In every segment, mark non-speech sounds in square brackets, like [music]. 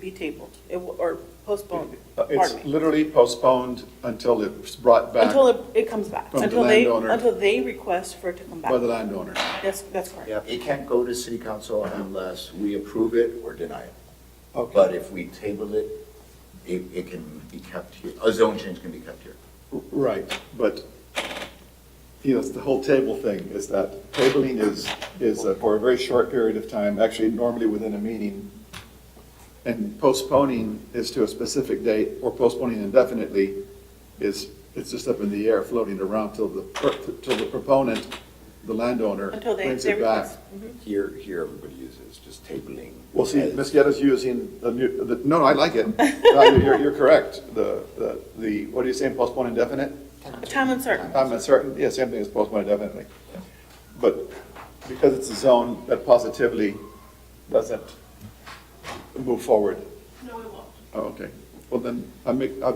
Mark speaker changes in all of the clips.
Speaker 1: be tabled, it w- or postponed,
Speaker 2: Uh, It's
Speaker 1: pardon me.
Speaker 2: literally postponed until it's brought back
Speaker 1: Until it, it comes back,
Speaker 2: From the
Speaker 1: until they,
Speaker 2: landowner.
Speaker 1: until they request for it to come back.
Speaker 2: by the landowner.
Speaker 1: That's, that's correct.
Speaker 3: Yeah, it can't go to city council unless we approve it or deny it. But
Speaker 2: Okay.
Speaker 3: if we table it, it, it can be kept here, a zone change can be kept here.
Speaker 2: Right, but, you know, it's the whole table thing, is that tabling is, is uh, for a very short period of time, actually normally within a meeting. And postponing is to a specific date, or postponing indefinitely is, it's just up in the air, floating around till the, per- till the proponent, the landowner,
Speaker 1: Until they,
Speaker 2: brings
Speaker 1: they
Speaker 2: it back.
Speaker 1: request. Mhm.
Speaker 4: Here, here, everybody uses just tabling.
Speaker 2: Mm-hmm. Well, see,
Speaker 4: as-
Speaker 2: Ms. Guetta's using the new, the, no, I like it. [laughs] No, You're, you're correct. The, the, the, what are you saying, postpone indefinite?
Speaker 1: Time uncertain,
Speaker 2: I'm uncertain, yeah, same thing as postpone indefinitely. But because it's a zone that positively doesn't move forward. No, it won't. Oh, okay. Well, then, I make, I,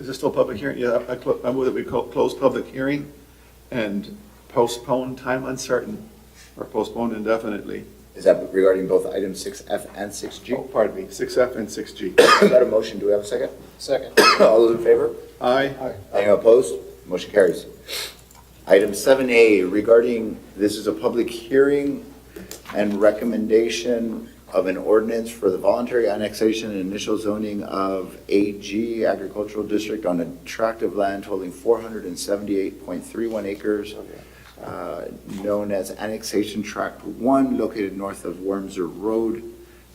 Speaker 2: is this still a public hearing? Yeah, I, clo- I move that we co- close public hearing and postpone time uncertain or postpone indefinitely.
Speaker 3: Is that regarding both item six F and six G?
Speaker 2: Oh, pardon me, six F and six G.
Speaker 3: Is that a motion? Do we have a second?
Speaker 5: Second.
Speaker 3: [coughs] All those in favor?
Speaker 2: Aye.
Speaker 3: Anyone opposed? Motion carries. Item seven A regarding, this is a public hearing and recommendation of an ordinance for the voluntary annexation and initial zoning of AG agricultural district on a tract of land holding four hundred and seventy-eight point three one acres, uh, known as annexation tract one, located north of Wormser Road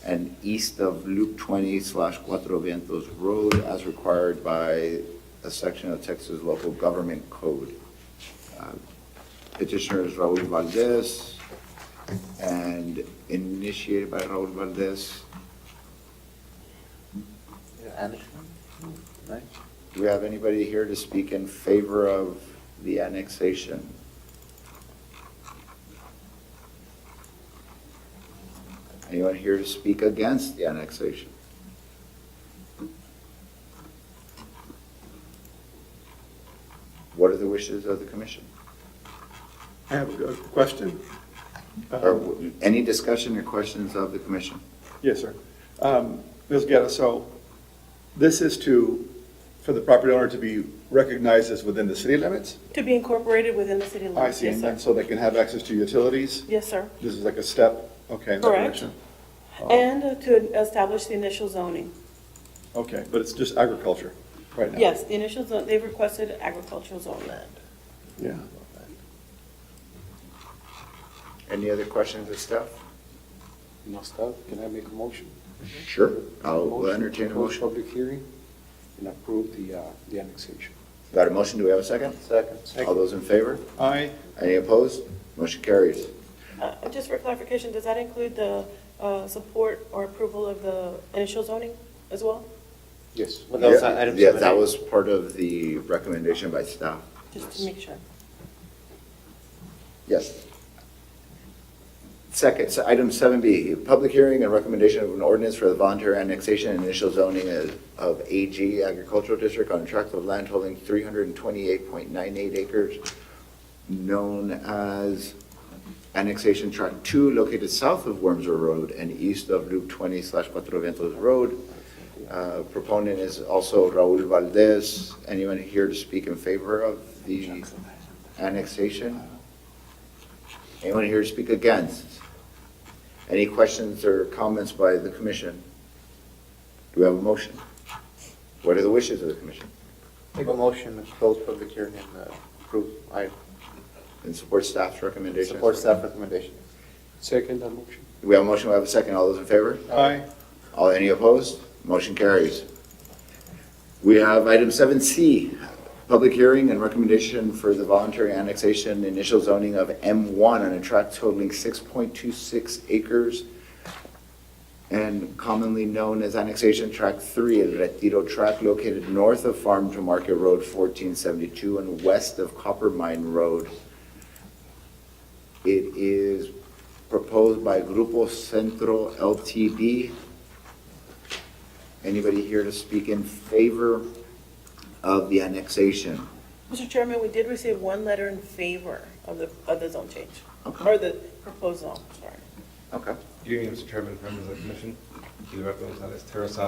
Speaker 3: and east of Loop twenty slash Cuatro Vientos Road as required by a section of Texas Local Government Code. Uh, Petitioner is Raul Valdez, and initiated by Raul Valdez. Do we have anybody here to speak in favor of the annexation? Anyone here to speak against the annexation? What are the wishes of the commission?
Speaker 2: I have a good question.
Speaker 3: Or
Speaker 2: Uh,
Speaker 3: w- any discussion or questions of the commission?
Speaker 2: Yes, sir. Um, Ms. Guerra, so this is to, for the property owner to be recognized as within the city limits?
Speaker 1: to be incorporated within the city
Speaker 2: I
Speaker 1: limits,
Speaker 2: see,
Speaker 1: yes,
Speaker 2: and
Speaker 1: sir.
Speaker 2: then so they can have access to utilities?
Speaker 1: Yes, sir.
Speaker 2: This is like a step, okay, in that
Speaker 1: Correct.
Speaker 2: direction? Oh,
Speaker 1: And uh, to establish the initial zoning.
Speaker 2: Okay, but it's just agriculture right now?
Speaker 1: Yes, the initial zone, they've requested agricultural zoning.
Speaker 2: Yeah.
Speaker 3: Any other questions of staff?
Speaker 5: No staff, can I make a motion?
Speaker 3: Sure. I'll entertain a
Speaker 5: Close
Speaker 3: motion.
Speaker 5: public hearing and approve the, uh, the annexation.
Speaker 3: Got a motion, do we have a second? Second. All those in favor?
Speaker 2: Aye,
Speaker 3: Any opposed? Motion carries.
Speaker 1: Uh, Just for clarification, does that include the uh, support or approval of the initial zoning as well?
Speaker 5: Yes.
Speaker 6: Well, that was
Speaker 3: Yeah,
Speaker 6: item
Speaker 3: Yeah,
Speaker 6: seven
Speaker 3: that
Speaker 6: A.
Speaker 3: was part of the recommendation by staff.
Speaker 1: Just to make sure.
Speaker 3: Yes. Second, so item seven B, public hearing and recommendation of an ordinance for the voluntary annexation and initial zoning of- of AG agricultural district on a tract of land holding three hundred and twenty-eight point nine eight acres, known as annexation tract two, located south of Wormser Road and east of Loop twenty slash Cuatro Vientos Road. Uh, Proponent is also Raul Valdez. Anyone here to speak in favor of the annexation? Anyone here to speak against? Any questions or comments by the commission? Do we have a motion? What are the wishes of the commission?
Speaker 6: Make a motion to close public hearing and uh, approve, I
Speaker 3: And support staff's recommendations?
Speaker 6: support staff recommendation.
Speaker 5: Second that motion.
Speaker 3: Do we have a motion? We have a second. All those in favor?
Speaker 2: aye,
Speaker 3: All, any opposed? Motion carries. We have item seven C, public hearing and recommendation for the voluntary annexation initial zoning of M one on a tract totaling six point two six acres and commonly known as annexation tract three, El Retiro tract located north of Farm to Market Road fourteen seventy-two and west of Copper Mine Road. It is proposed by Grupo Centro LTD. Anybody here to speak in favor of the annexation?
Speaker 1: Mr. Chairman, we did receive one letter in favor of the, of the zone change,
Speaker 3: Okay.
Speaker 1: or the proposed zone, sorry.
Speaker 3: Okay.
Speaker 7: Good evening, Mr. Chairman, members of the commission. Gilberto Gonzalez Terrazas,